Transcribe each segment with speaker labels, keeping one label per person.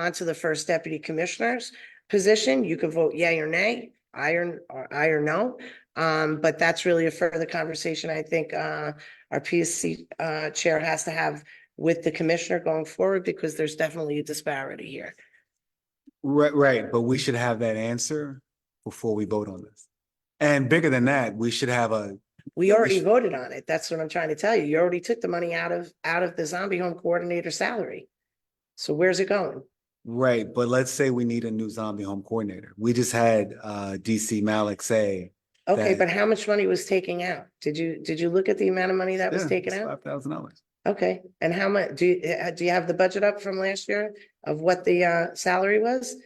Speaker 1: onto the first deputy commissioner's position, you can vote yay or nay, aye or, or aye or no. Um, but that's really a further conversation I think, uh, our PSC, uh, chair has to have with the commissioner going forward because there's definitely a disparity here.
Speaker 2: Right, right, but we should have that answer before we vote on this. And bigger than that, we should have a,
Speaker 1: We already
Speaker 2: Yes.
Speaker 1: voted on it. That's what I'm trying to tell you. You already took the money out of, out of the zombie home coordinator salary. So where's it going?
Speaker 2: right, but let's say we need a new zombie home coordinator. We just had uh DC Malik say.
Speaker 1: Okay,
Speaker 2: That-
Speaker 1: but how much money was taken out? Did you, did you look at the amount of money that was taken out?
Speaker 2: Five thousand dollars.
Speaker 1: Okay, and how much, do you, uh, do you have the budget up from last year of what the uh salary was?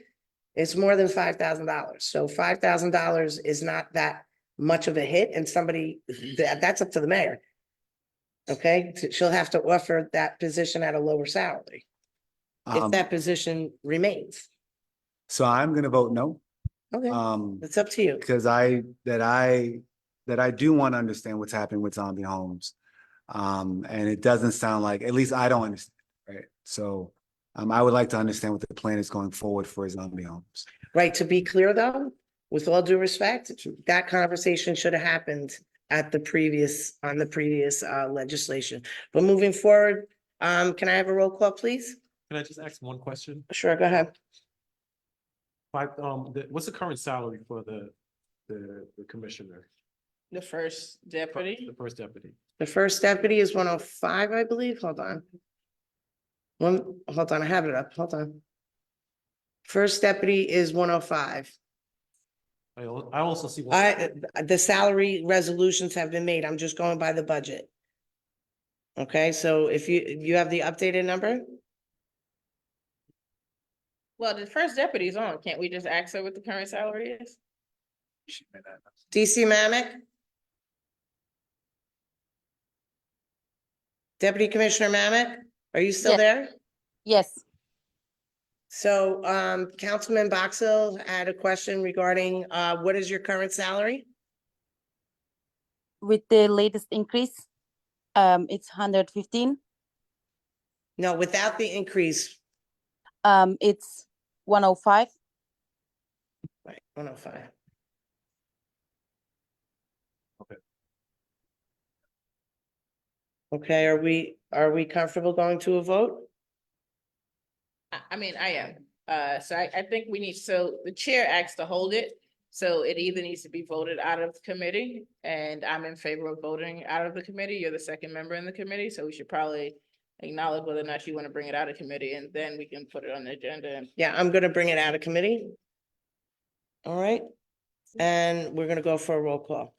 Speaker 1: It's more than five thousand dollars, so five thousand dollars is not that much of a hit and somebody, that that's up to the mayor. Okay, t- she'll have to offer that position at a lower salary, if
Speaker 2: Um,
Speaker 1: that position remains.
Speaker 2: so I'm gonna vote no,
Speaker 1: Okay,
Speaker 2: um,
Speaker 1: it's up to you.
Speaker 2: because I, that I, that I do want to understand what's happening with zombie homes. Um, and it doesn't sound like, at least I don't understand, right? So um, I would like to understand what the plan is going forward for zombie homes.
Speaker 1: Right, to be clear though, with all due respect, that conversation should have happened at the previous, on the previous uh legislation. But moving forward, um, can I have a roll call, please?
Speaker 3: Can I just ask one question?
Speaker 1: Sure, go ahead.
Speaker 3: Five, um, the, what's the current salary for the, the, the commissioner?
Speaker 4: The first
Speaker 3: Fir-
Speaker 4: deputy,
Speaker 3: The first deputy.
Speaker 1: The first deputy is one oh five, I believe, hold on. One, hold on, I have it up, hold on. First deputy is one oh five.
Speaker 3: I, al- I also see. one-
Speaker 1: I, uh, the salary resolutions have been made, I'm just going by the budget. Okay, so if you, you have the updated number?
Speaker 4: well, the first deputy's on, can't we just ask her what the current salary is?
Speaker 2: She may not-
Speaker 1: DC Mamet? Deputy Commissioner Mamet, are you still
Speaker 5: Yes.
Speaker 1: there?
Speaker 5: Yes,
Speaker 1: So, um, Councilman Boxell had a question regarding, uh, what is your current salary?
Speaker 5: with the latest increase, um, it's hundred fifteen,
Speaker 1: No, without the increase,
Speaker 5: um, it's one oh five.
Speaker 1: right, one oh five.
Speaker 3: Okay.
Speaker 1: Okay, are we, are we comfortable going to a vote?
Speaker 4: I, I mean, I am, uh, so I, I think we need, so the chair acts to hold it. So it either needs to be voted out of committee, and I'm in favor of voting out of the committee, you're the second member in the committee, so we should probably. Acknowledge whether or not you wanna bring it out of committee, and then we can put it on the agenda and
Speaker 1: Yeah, I'm gonna bring it out of committee. All right, and we're gonna go for a roll call.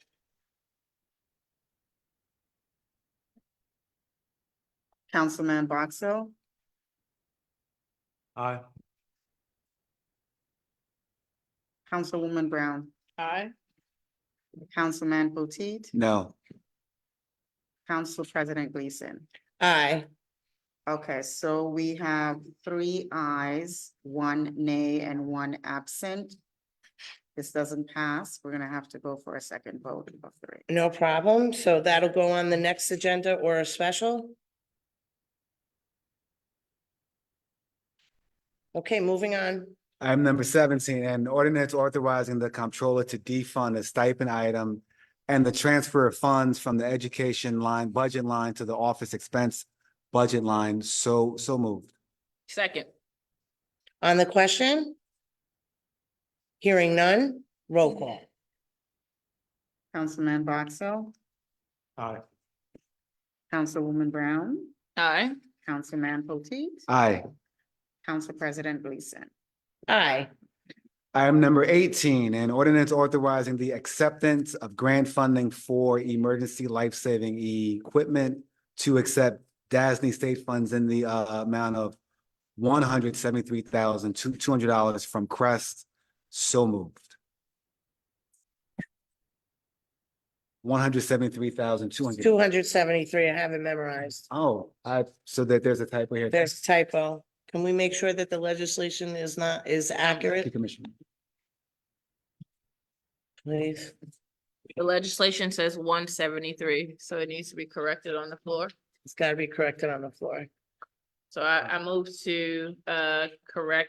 Speaker 6: Councilman Boxell,
Speaker 3: Aye.
Speaker 6: Councilwoman Brown,
Speaker 4: I.
Speaker 6: Councilman Potteet,
Speaker 2: No.
Speaker 6: Council President Gleason.
Speaker 1: Aye,
Speaker 6: Okay, so we have three ayes, one nay, and one absent. This doesn't pass. We're gonna have to go for a second vote of three.
Speaker 1: no problem. So that'll go on the next agenda or a special. Okay, moving on.
Speaker 2: Item number seventeen, an ordinance authorizing the comptroller to defund a stipend item and the transfer of funds from the education line, budget line to the office expense budget line. So, so moved.
Speaker 4: Second,
Speaker 1: On the question? Hearing none, roll call.
Speaker 6: Councilman Boxell,
Speaker 3: Aye.
Speaker 6: Councilwoman Brown,
Speaker 4: I.
Speaker 6: Councilman Potteet,
Speaker 2: Aye.
Speaker 6: Council President Gleason.
Speaker 1: Aye,
Speaker 2: Item number eighteen, an ordinance authorizing the acceptance of grant funding for emergency life-saving equipment to accept DASNY state funds in the uh, amount of one hundred seventy-three thousand two hundred dollars from Crest. So moved. One hundred seventy-three thousand two hundred.
Speaker 1: two hundred seventy-three, I have it memorized.
Speaker 2: Oh, I, so that there's a typo here.
Speaker 1: There's a typo. Can we make sure that the legislation is not, is
Speaker 2: Thank you,
Speaker 1: accurate,
Speaker 2: Commissioner.
Speaker 1: please?
Speaker 4: The legislation says one seventy-three, so it needs to be corrected on the floor.
Speaker 1: It's gotta be corrected on the floor.
Speaker 4: So I, I move to, uh, correct